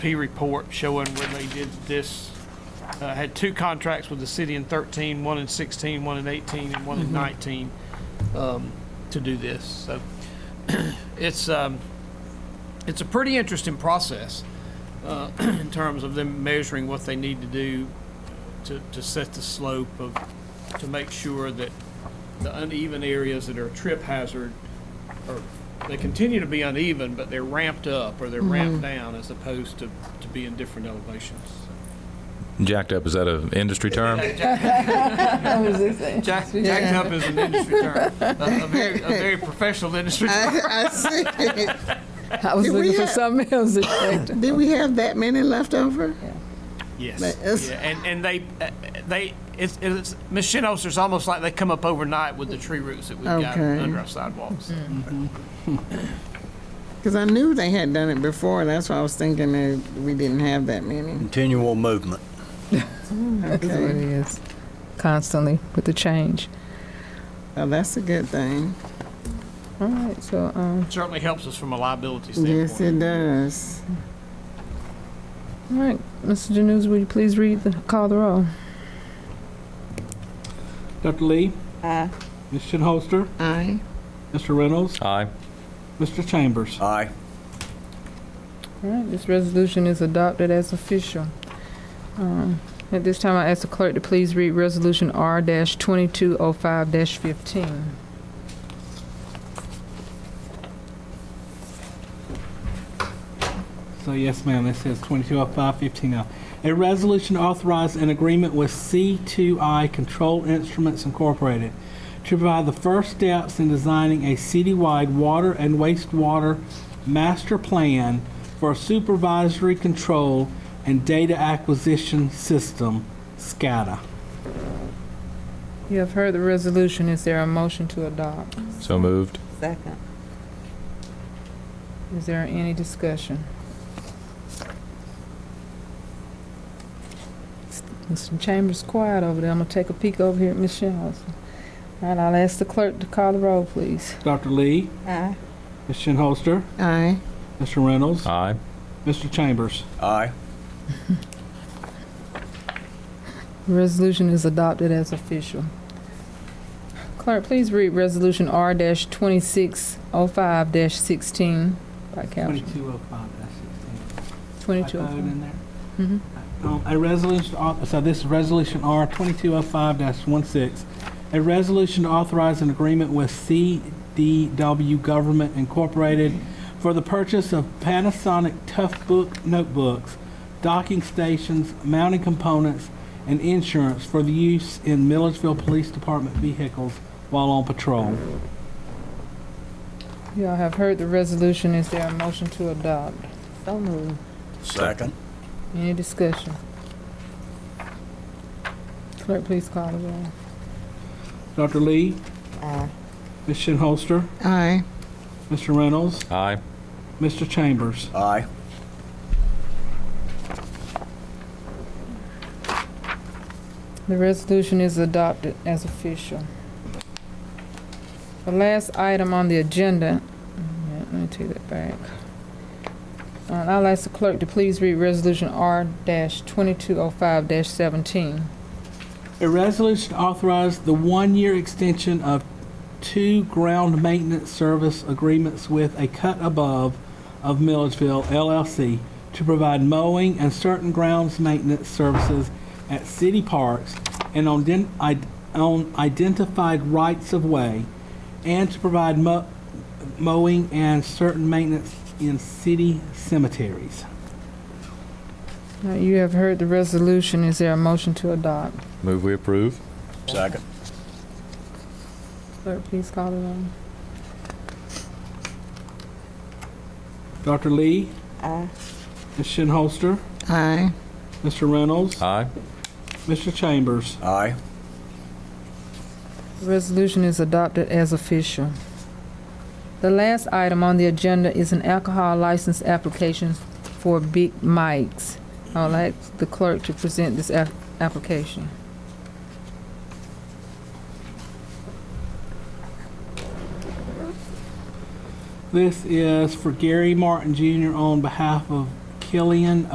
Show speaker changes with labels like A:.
A: P report showing when they did this. Uh, had two contracts with the city in 13, one in 16, one in 18, and one in 19 um, to do this. So it's um, it's a pretty interesting process uh, in terms of them measuring what they need to do to, to set the slope of to make sure that the uneven areas that are a trip hazard or they continue to be uneven, but they're ramped up or
B: Mm-hmm.
A: they're ramped down as opposed to, to be in different elevations.
C: Jacked up, is that an industry term?
A: Jack, jacked up is an industry term, a, a very, a very professional industry term.
B: I, I see.
D: I was
B: Did we
D: looking for
B: have-
D: something else.
B: Did we have that many left over? But
A: Yes.
B: it's-
A: Yeah, and, and they, uh, they, it's, it's, Ms. Shinoster's almost like they come up overnight with the tree roots that we've got
B: Okay. Mm-hmm.
A: under our sidewalks.
B: Because I knew they had done it before. That's why I was thinking that we didn't have that many.
E: Continual movement.
D: It
B: Okay.
D: is constantly with the change.
B: Oh, that's a good thing.
D: All right, so um,
A: Certainly helps us from a liability
B: Yes, it
A: standpoint.
B: does.
D: all right, Mr. Janus, will you please read the call the roll?
F: Dr. Lee. Aye. Ms. Shinholster.
B: Aye.
F: Mr. Reynolds.
C: Aye.
F: Mr. Chambers.
E: Aye.
D: All right, this resolution is adopted as official. Um, at this time, I ask the clerk to please read Resolution R-2205-15.
F: So yes, ma'am, this is 220515 now. oh. A resolution authorizing an agreement with C2I Control Instruments Incorporated to provide the first steps in designing a citywide water and wastewater master plan for supervisory control and data acquisition system, SCADA.
D: You have heard the resolution. Is there a motion to adopt?
C: So moved.
B: Second.
D: Is there any discussion? Mr. Chambers quiet over there. I'm gonna take a peek over here at Ms. Shinhouser. All right, I'll ask the clerk to call the roll, please.
F: Dr. Lee,
B: Aye.
F: Ms. Shinholster,
B: Aye.
F: Mr. Reynolds,
C: Aye.
F: Mr. Chambers.
E: Aye.
D: Resolution is adopted as official. Clerk, please read Resolution R-2605-16 by caption.
F: 2205, that's 16.
D: Twenty-two oh
F: typoed
D: five. Mm-hmm.
F: in there. Um, A resolution, au- so this is Resolution R 2205-16, a resolution to authorize an agreement with CDW Government Incorporated for the purchase of Panasonic Toughbook notebooks, docking stations, mounting components, and insurance for the use in Milledgeville Police Department vehicles while on patrol.
D: Y'all have heard the resolution. Is there a motion to adopt? So moved.
E: Second.
D: Any discussion? Clerk, please call the roll.
F: Dr. Lee? Ms. Shinholster?
B: Aye.
F: Mr. Reynolds?
C: Aye.
F: Mr. Chambers?
E: Aye.
D: The resolution is adopted as official. The last item on the agenda, yeah, let me take that back. Uh, I'll ask the clerk to please read Resolution R-2205-17.
F: A resolution authorized the one-year extension of two ground maintenance service agreements with a cut above of Milledgeville LLC to provide mowing and certain grounds maintenance services at city parks and on den- id- on identified rights of way, and to provide mo- mowing and certain maintenance in city cemeteries.
D: Now, you have heard the resolution. Is there a motion to adopt?
C: Move we approve?
E: Second.
D: Clerk, please call the roll.
F: Dr. Lee? Ms. Shinholster?
B: Aye.
F: Mr. Reynolds?
C: Aye.
F: Mr. Chambers.
E: Aye.
D: The Resolution is adopted as official. The last item on the agenda is an alcohol license application for Big Mike's. I would like the clerk to present this ap- application.
F: This is for Gary Martin Jr. on behalf of Killian